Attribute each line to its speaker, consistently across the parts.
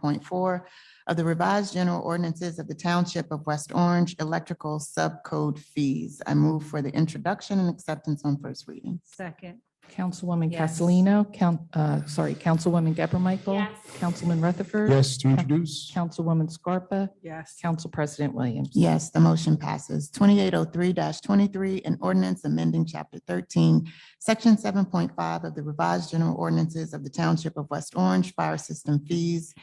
Speaker 1: point four of the revised general ordinances of the Township of West Orange Electrical Subcode Fees. I move for the introduction and acceptance on first reading.
Speaker 2: Second.
Speaker 3: Councilwoman
Speaker 2: Yes.
Speaker 3: Castellino, count, uh, sorry, Councilwoman Gabor Michael. Councilman Rutherford.
Speaker 4: Yes, to introduce.
Speaker 3: Councilwoman Scarpa,
Speaker 2: Yes.
Speaker 3: Council President Williams.
Speaker 1: Yes, the motion passes. Twenty-eight oh three twenty-three, an ordinance amending chapter thirteen, section seven point five of the revised general ordinances of the Township of West Orange Fire System Fees.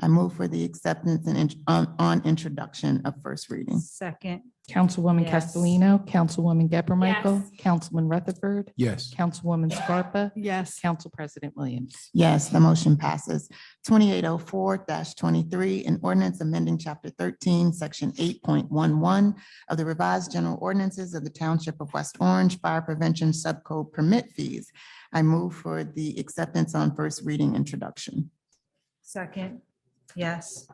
Speaker 1: I move for the acceptance and int- on, on introduction of first reading.
Speaker 2: Second.
Speaker 3: Councilwoman
Speaker 2: Yes.
Speaker 3: Castellino, Councilwoman Gabor Michael. Councilman Rutherford,
Speaker 4: Yes,
Speaker 3: Councilwoman Scarpa,
Speaker 2: Yes.
Speaker 3: Council President Williams.
Speaker 1: Yes, the motion passes. Twenty-eight oh four twenty-three, an ordinance amending chapter thirteen, section eight point one one of the revised general ordinances of the Township of West Orange Fire Prevention Subcode Permit Fees. I move for the acceptance on first reading introduction.
Speaker 2: Second. Yes.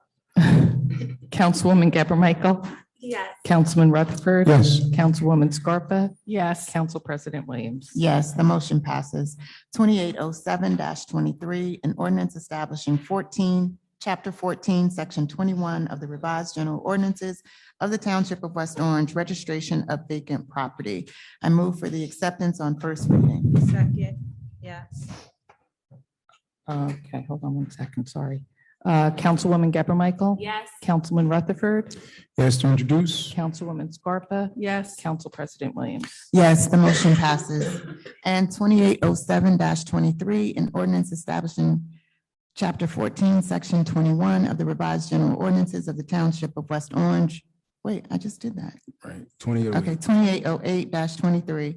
Speaker 3: Councilwoman Gabor Michael. Yes. Councilman Rutherford.
Speaker 4: yes,
Speaker 3: Councilwoman Scarpa,
Speaker 2: Yes.
Speaker 3: Council President Williams.
Speaker 1: Yes, the motion passes. Twenty-eight oh seven twenty-three, an ordinance establishing fourteen, chapter fourteen, section twenty-one of the revised general ordinances of the Township of West Orange, registration of vacant property. I move for the acceptance on first reading.
Speaker 2: Second. Yes.
Speaker 3: Uh, Okay, hold on one second, sorry. Uh, Councilwoman Gabor Michael.
Speaker 5: Yes.
Speaker 3: Councilman Rutherford,
Speaker 4: yes, to introduce.
Speaker 3: Councilwoman Scarpa,
Speaker 2: Yes.
Speaker 3: Council President Williams.
Speaker 1: Yes, the motion passes. And twenty-eight oh seven twenty-three, an ordinance establishing chapter fourteen, section twenty-one of the revised general ordinances of the Township of West Orange. Wait, I just did that.
Speaker 4: Right, twenty-eight.
Speaker 1: Okay, twenty-eight oh eight twenty-three.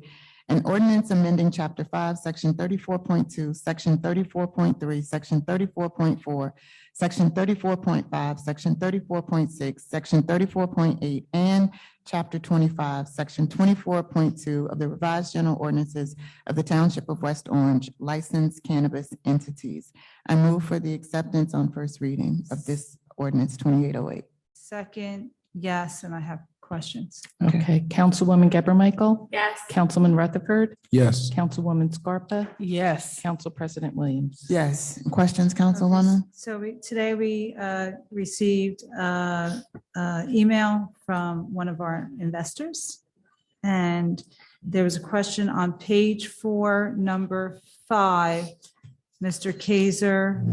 Speaker 1: An ordinance amending chapter five, section thirty-four point two, section thirty-four point three, section thirty-four point four, section thirty-four point five, section thirty-four point six, section thirty-four point eight, and chapter twenty-five, section twenty-four point two of the revised general ordinances of the Township of West Orange, licensed cannabis entities. I move for the acceptance on first reading of this ordinance twenty-eight oh eight.
Speaker 2: Second. Yes. And I have questions.
Speaker 1: Okay.
Speaker 3: Okay, Councilwoman Gabor Michael,
Speaker 5: Yes.
Speaker 3: Councilman Rutherford,
Speaker 4: Yes,
Speaker 3: Councilwoman Scarpa,
Speaker 2: Yes.
Speaker 3: Council President Williams.
Speaker 1: Yes. Questions,
Speaker 2: Okay,
Speaker 1: Councilwoman?
Speaker 2: So we, today we uh, received uh, uh, email from one of our investors. And there was a question on page four, number five. Mr. Kaiser,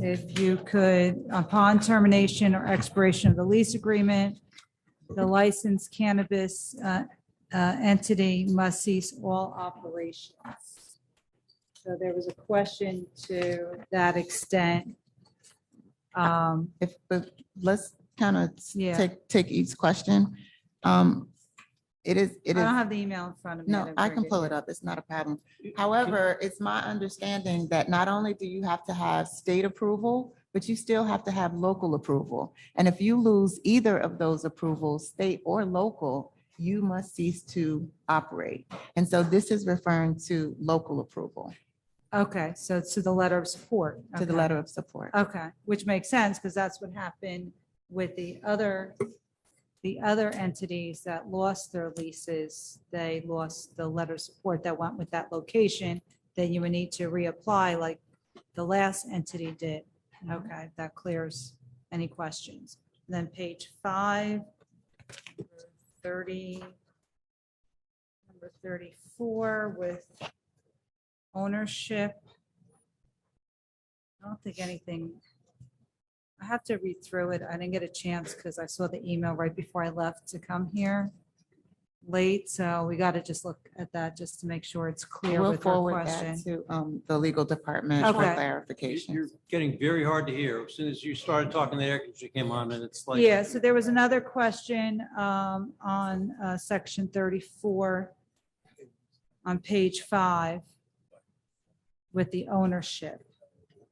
Speaker 2: if you could, upon termination or expiration of the lease agreement, the licensed cannabis uh, uh, entity must cease all operations. So there was a question to that extent. Um,
Speaker 1: If, but let's kind of
Speaker 2: Yeah.
Speaker 1: take, take each question. Um, it is,
Speaker 2: I
Speaker 1: it is,
Speaker 2: don't have the email in front of me.
Speaker 1: no,
Speaker 2: that
Speaker 1: I
Speaker 2: we're
Speaker 1: can
Speaker 2: getting.
Speaker 1: pull it up. It's not a problem. However, it's my understanding that not only do you have to have state approval, but you still have to have local approval. And if you lose either of those approvals, state or local, you must cease to operate. And so this is referring to local approval,
Speaker 2: Okay, so it's to the letter of support.
Speaker 1: to the
Speaker 2: okay.
Speaker 1: letter of support.
Speaker 2: Okay, which makes sense because that's what happened with the other, the other entities that lost their leases. They lost the letter of support that went with that location. Then you would need to reapply like the last entity did.
Speaker 1: Mm-hmm.
Speaker 2: Okay, that clears any questions. Then page five, number thirty, number thirty-four with ownership. I don't think anything. I have to read through it. I didn't get a chance because I saw the email right before I left to come here late, so we got to just look at that just to make sure it's clear
Speaker 1: We'll
Speaker 2: with our
Speaker 1: forward that
Speaker 2: question.
Speaker 1: to, um, the legal department for
Speaker 2: Okay.
Speaker 5: You-
Speaker 1: clarification.
Speaker 5: You're getting very hard to hear. As soon as you started talking, the air conditioner came on and it's like.
Speaker 2: Yeah, so there was another question um, on uh, section 34 on page five with the ownership.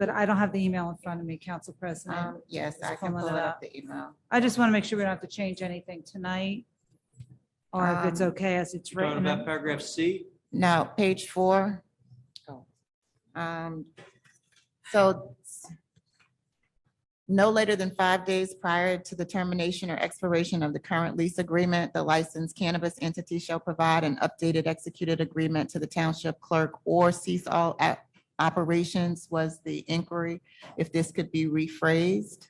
Speaker 2: But I don't have the email in front of me, Council President.
Speaker 1: Um, yes,
Speaker 2: Just
Speaker 1: I can
Speaker 2: pulling
Speaker 1: pull it
Speaker 2: it up.
Speaker 1: up the email.
Speaker 2: I just want to make sure we don't have to change anything tonight. Or if it's
Speaker 1: Um,
Speaker 2: okay as it's
Speaker 5: Talking
Speaker 2: written.
Speaker 5: about paragraph C,
Speaker 1: Now, page four.
Speaker 3: Oh.
Speaker 1: Um, so no later than five days prior to the termination or expiration of the current lease agreement, the licensed cannabis entity shall provide an updated executed agreement to the township clerk or cease all a- operations was the inquiry, if this could be rephrased.